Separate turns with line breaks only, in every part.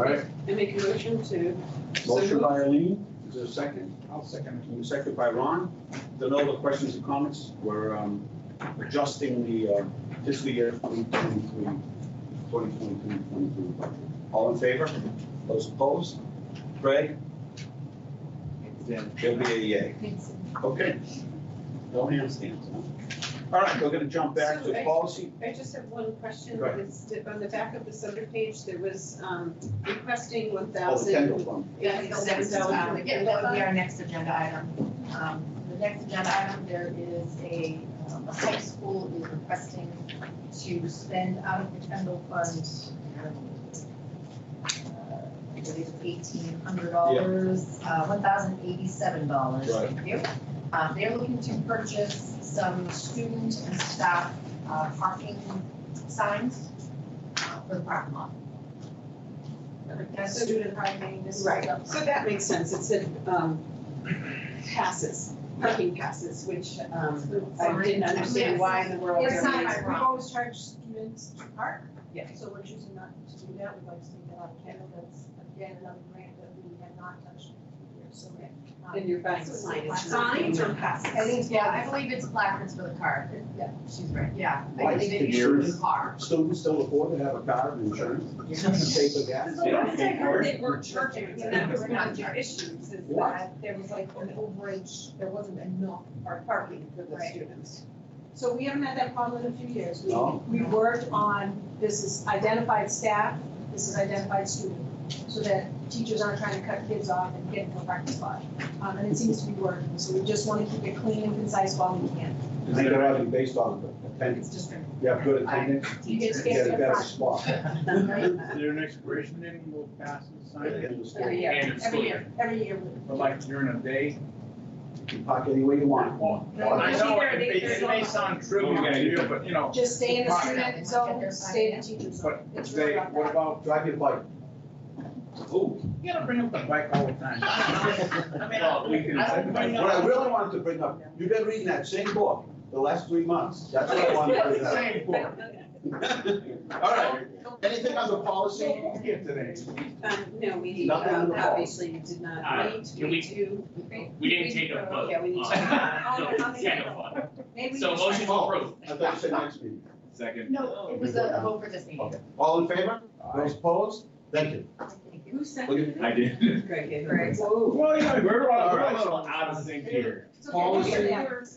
right.
I make a motion to.
Motion by Eileen, is there a second? I'll second. And second by Ron. Then all the questions and comments, we're um, adjusting the uh, fiscal year 2023, 2022 budget. All in favor? Those opposed? Greg? There'll be a yay. Okay. No handstands, huh? All right, we're gonna jump back to
So I-
policy.
I just have one question.
Go ahead.
It's di- on the back of this other page, there was um, requesting one
Oh, the
thousand.
Kendall one.
Yeah,
Yes, that was, um,
Yeah,
again, that
uh,
would be our next agenda item. Um, The next agenda item, there is a, um, a high school is requesting to spend out of the Kendall Fund. uh, I believe it's eighteen hundred dollars, uh, one thousand eighty-seven dollars,
Right.
thank you. Uh, They're looking to purchase some student and staff uh, parking signs uh, for the parking lot. That's student parking, this is.
Right, so that makes sense. It said um, passes, parking passes, which um, I didn't understand why in the world.
Yes.
It's not,
there was-
Yes.
right. we always charge students to park.
Yeah.
So we're choosing not to do that, we'd like to take that out of Canada, that's again another grant that we have not touched in years, so. we're not-
And you're buying signs.
Signs or passes?
I think, yeah, I believe it's placards for the car. Yeah, she's right, yeah. I
Lights,
believe it
figures.
uses the car.
Students still afford to have a car and insurance, pay for gas.
So
Yeah.
once I heard they weren't charging, and that was
We're
one
not
of the
charging.
issues, is
What?
that there was like an overage, there wasn't enough for parking for the
Right.
students. So we haven't had that problem in a few years. We-
No.
We worked on, this is identified staff, this is identified student, so that teachers aren't trying to cut kids off and get into a parking spot. Um, and it seems to be working, so we just want to keep it clean and concise while we can.
I think they're having based on attendance.
It's just.
You have good attendance,
You get
you
to
get a
get
better
the
spot.
front.
Is there an expiration date when we'll pass the sign?
Right,
End
in the
of
store.
Every
the
year.
Every
school
year, every year.
But like during a day?
You can park any way you want.
I know, it may,
Either they-
it may sound trivial
Well,
to you, but you know,
Just stay in the
Right.
student zone, stay in the teacher's zone.
but
It's really
they,
about
what
that.
about,
Drive your bike. Ooh.
you gotta bring up the bike all the time. I mean,
Well, we can-
I don't
What
bring
I
up.
really wanted to bring up, you've been reading that same book the last three months. That's what I wanted to bring up.
Same book.
All right, anything on the policy?
Here today.
Um, No, we,
Nothing on
um,
the wall.
obviously, you did not
Uh,
meet.
can
We
we-
do.
We didn't take a vote.
Yeah, we need to-
on the second one. So motion to approve.
I thought you said next meeting.
Second.
No, it was a a vote for this meeting.
Okay. All in favor? Those opposed? Thank you.
Thank you.
Who
Well,
seconded it?
I did.
Greg did.
Greg.
Whoa.
Well, you know, we're, we're
All
a
right.
little out of sync here.
It's okay,
Policy.
we'll get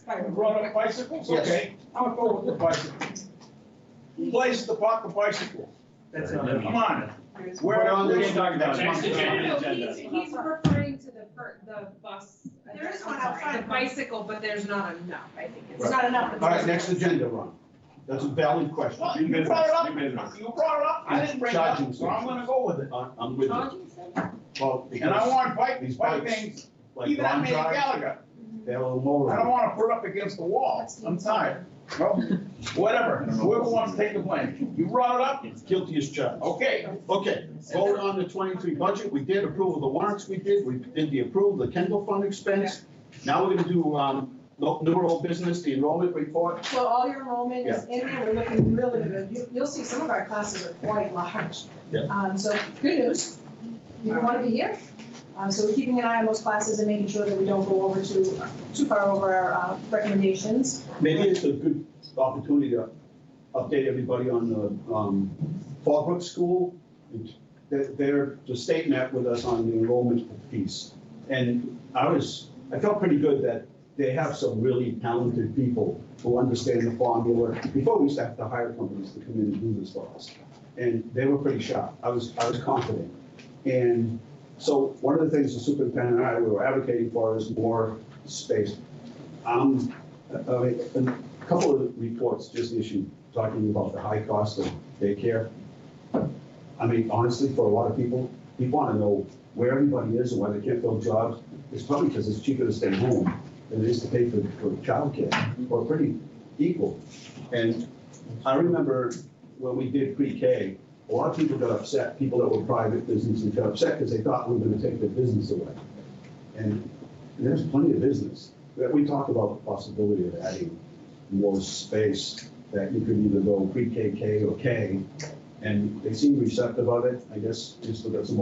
there.
You Brought up bicycles,
Yes.
okay, I'll go with the bicycle. Place to park the bicycle.
That's
Come
not it.
on,
There's-
where,
We're on the-
where you talking about?
Next agenda.
No, he's, he's referring to the, per- the bus.
There is one outside.
The bicycle, but there's not enough, I think.
It's not enough.
All right, next agenda, Ron. That's a valid question.
Well, you brought it up, you brought it up, I didn't bring it
Charging
up, so I'm gonna go with it.
I- I'm with you. Well, because
And I want bike,
These
bike
bikes,
things,
like
even on
Ron
Manny
drives,
Gallagher,
they're a little
I don't
more.
wanna put up against the wall, I'm tired. Well, whatever, whoever wants to take the blame, you brought it up,
Guilty as charged.
okay,
Okay, vote on the twenty-three budget. We did approve of the warrants we did. We did the approval, the Kendall Fund expense. Now we're gonna do, um, no- newer old business, the enrollment report.
So all your enrollment is in there, we're looking really good. You, you'll see some of our classes are quite large.
Yeah.
Um, so good news, you want to be here. Uh, so we're keeping an eye on those classes and making sure that we don't go over too, too far over our uh, recommendations.
Maybe it's a good opportunity to update everybody on the, um, Fallbrook School. They're, they're, the state met with us on the enrollment piece. And I was, I felt pretty good that they have some really talented people who understand the formula. Before, we used to have to hire companies to come in and do this for us. And they were pretty sharp. I was, I was confident. And so one of the things the superintendent and I were advocating for is more space. Um, I I mean, a couple of reports just issued talking about the high cost of daycare. I mean, honestly, for a lot of people, we want to know where everybody is and why they can't fill jobs. It's probably because it's cheaper to stay home than it is to pay for, for childcare, or pretty equal. And I remember when we did pre-K, a lot of people got upset, people that were private businesses got upset because they thought we were going to take their business away. And there's plenty of business. That we talked about the possibility of adding more space that you could either go pre-K, K, or K. And they seem receptive of it, I guess, just look at some